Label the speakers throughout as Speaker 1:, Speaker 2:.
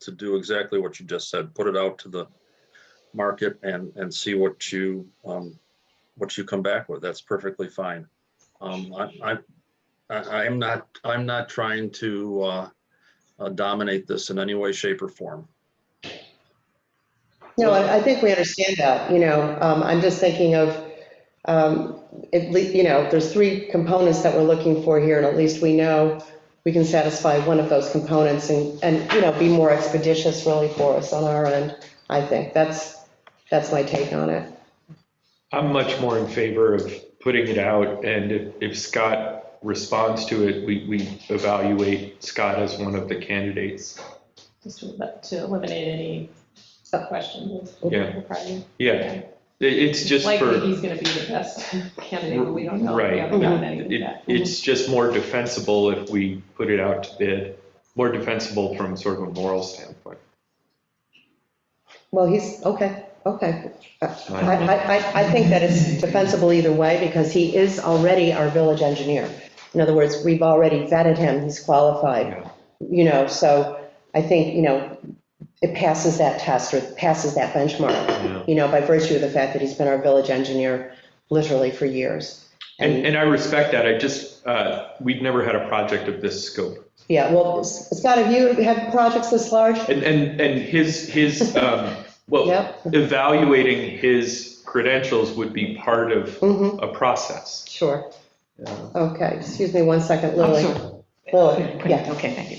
Speaker 1: to do exactly what you just said, put it out to the market and, and see what you, um, what you come back with. That's perfectly fine. Um, I, I, I am not, I'm not trying to, uh, uh, dominate this in any way, shape or form.
Speaker 2: No, I I think we understand that, you know, um, I'm just thinking of, um, at least, you know, there's three components that we're looking for here, and at least we know we can satisfy one of those components and, and, you know, be more expeditious really for us on our end, I think. That's, that's my take on it.
Speaker 3: I'm much more in favor of putting it out, and if, if Scott responds to it, we, we evaluate Scott as one of the candidates.
Speaker 4: Just to elimi- to eliminate any sub-questions. of-
Speaker 3: Yeah.
Speaker 4: of Friday.
Speaker 3: Yeah, it, it's just
Speaker 4: Likely
Speaker 3: for,
Speaker 4: he's gonna be the best candidate, but we don't know.
Speaker 3: Right.
Speaker 4: We haven't gotten anything
Speaker 3: it,
Speaker 4: back.
Speaker 3: it's just more defensible if we put it out to bid, more defensible from sort of a moral standpoint.
Speaker 2: Well, he's, okay, okay. I,
Speaker 3: Right.
Speaker 2: I, I- I think that it's defensible either way because he is already our village engineer. In other words, we've already vetted him, he's qualified.
Speaker 3: Yeah.
Speaker 2: you know, so I think, you know, it passes that test or passes that benchmark,
Speaker 3: Yeah.
Speaker 2: you know, by virtue of the fact that he's been our village engineer literally for years.
Speaker 3: And, and I respect that, I just, uh, we've never had a project of this scope.
Speaker 2: Yeah, well, S- Scott, have you had projects this large?
Speaker 3: And, and, and his, his, um, well,
Speaker 2: Yep.
Speaker 3: evaluating his credentials would be part of
Speaker 2: hmm
Speaker 3: a process.
Speaker 2: sure.
Speaker 3: Yeah.
Speaker 2: Okay, excuse me one second, Lily.
Speaker 5: Also-
Speaker 2: Lily, yeah.
Speaker 5: Okay, thank you.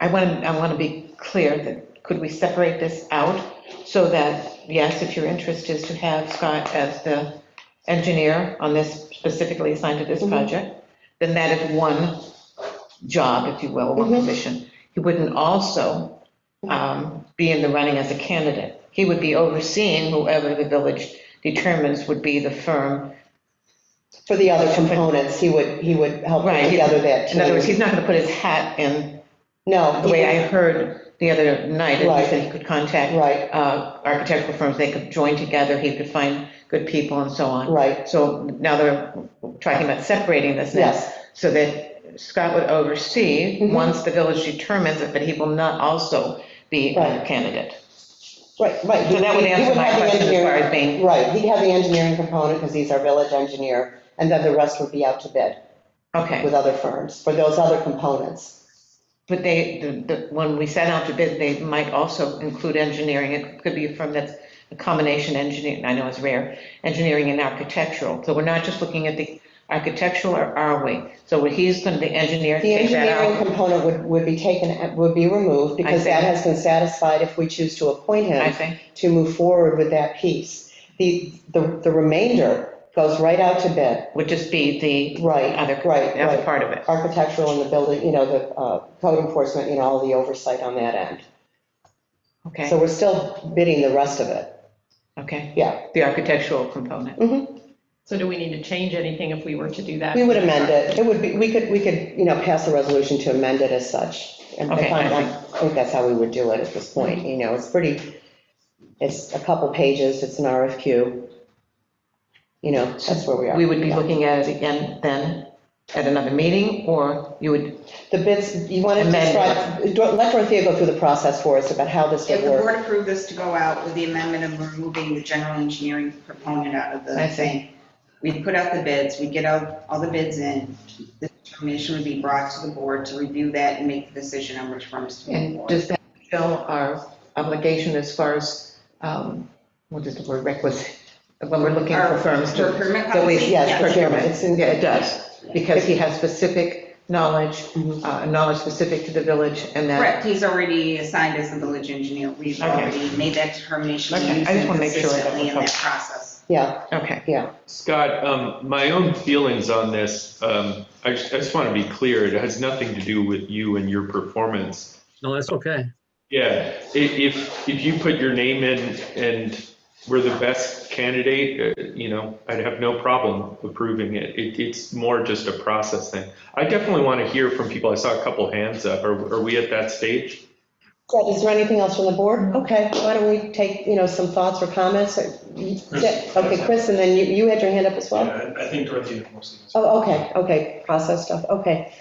Speaker 5: I want, I want to be clear that, could we separate this out so that, yes, if your interest is to have Scott as the engineer on this specifically assigned to this
Speaker 2: Mhm.
Speaker 5: project, then that is one job, if you will, one
Speaker 2: Mhm.
Speaker 5: position. He wouldn't also um, be in the running as a candidate. He would be overseeing whoever the village determines would be the firm.
Speaker 2: For the other components, he would, he would help put
Speaker 5: Right, he-
Speaker 2: together that.
Speaker 5: In other words,
Speaker 2: team.
Speaker 5: he's not going to put his hat in
Speaker 2: No.
Speaker 5: The way I heard the other night, it
Speaker 2: Right.
Speaker 5: was that he could contact
Speaker 2: Right,
Speaker 5: uh, architectural firms, they could join together, he could find good people and so on.
Speaker 2: right,
Speaker 5: So now they're talking about separating this now,
Speaker 2: yes,
Speaker 5: so that Scott would oversee,
Speaker 2: Mhm.
Speaker 5: once the village determines it, but he will not also be a
Speaker 2: Right.
Speaker 5: candidate.
Speaker 2: right, right.
Speaker 5: So that would
Speaker 2: He- he
Speaker 5: answer my
Speaker 2: have the
Speaker 5: question as
Speaker 2: engineering-
Speaker 5: far as being,
Speaker 2: Right, he'd have the engineering component because he's our village engineer, and then the rest would be out to bid
Speaker 5: okay,
Speaker 2: with other firms for those other components.
Speaker 5: but they, the- the- when we set out to bid, they might also include engineering, it could be a firm that's a combination engineer, I know it's rare, engineering and architectural, so we're not just looking at the architectural, or are we? So what he's going to, the engineer,
Speaker 2: The
Speaker 5: take that
Speaker 2: engineering
Speaker 5: out?
Speaker 2: component would, would be taken, would be removed because
Speaker 5: see.
Speaker 2: that has been satisfied if we choose to appoint
Speaker 5: I
Speaker 2: him
Speaker 5: think,
Speaker 2: to move forward with that piece. The, the the remainder goes right out to bid,
Speaker 5: would just be
Speaker 2: right,
Speaker 5: other-
Speaker 2: right,
Speaker 5: the other
Speaker 2: right.
Speaker 5: part of it.
Speaker 2: Architectural and the building, you know, the uh, code enforcement, you know, all the oversight on that end. So
Speaker 5: Okay,
Speaker 2: we're still bidding the rest of it,
Speaker 5: okay,
Speaker 2: yeah.
Speaker 5: the architectural component.
Speaker 2: Mhm.
Speaker 4: So do we need to change anything if we were to do that?
Speaker 2: We would amend it. It would be, we could, we could, you know, pass a resolution to amend it as such. And I
Speaker 5: Okay, I Mm-hmm.
Speaker 2: find- I think that's how we would do it at this point, you know, it's pretty, it's a couple pages, it's an RFQ. You know, that's where we are.
Speaker 5: We would be looking at it again then, at another meeting, or you would,
Speaker 2: The bids, you want to
Speaker 5: Amend
Speaker 2: describe, Dor- let Dorothea go through the process for us about how this
Speaker 6: If
Speaker 2: would
Speaker 6: the
Speaker 2: work.
Speaker 6: board approved this to go out with the amendment of removing the general engineering proponent out of
Speaker 5: I
Speaker 6: the
Speaker 5: see.
Speaker 6: thing, we'd put out the bids, we'd get out all the bids in, the determination would be brought to the board to review that and make the decision on which firms to move
Speaker 5: and
Speaker 6: forward.
Speaker 5: does that show our obligation as far as, um, what is the word, requisite? When we're looking for
Speaker 6: Our
Speaker 5: firms to.
Speaker 6: procurement
Speaker 5: that we-
Speaker 6: policy,
Speaker 2: yes, procurement, it's in-
Speaker 5: Yeah, it does, because he has specific knowledge, uh, knowledge specific to the village, and that.
Speaker 6: Correct, he's already assigned as the village engineer, we've
Speaker 5: Okay.
Speaker 6: already made that determination,
Speaker 5: Okay, I
Speaker 6: we're
Speaker 5: just
Speaker 6: using it
Speaker 5: wanna make sure that
Speaker 6: consistently
Speaker 5: we're
Speaker 6: in that
Speaker 5: covered.
Speaker 6: process.
Speaker 2: Yeah,
Speaker 5: Okay,
Speaker 3: Scott, um, my own feelings on this, um, I just, I just want to be clear, it has nothing to do with you and your performance.
Speaker 1: No, that's okay.
Speaker 3: Yeah, i- if, if you put your name in and were the best candidate, uh, you know, I'd have no problem approving it. It, it's more just a process thing. I definitely want to hear from people. I saw a couple hands up. Are, are we at that stage?
Speaker 2: So is there anything else from the board? Okay, why don't we take, you know, some thoughts or comments? or- Okay, Chris, and then you, you had your hand up as well?
Speaker 7: Yeah, I I think Dorothea mostly. answered.
Speaker 2: Oh, okay, okay, process stuff, okay.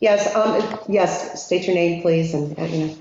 Speaker 2: Yes, um, yes, state your name, please, and, uh, you know,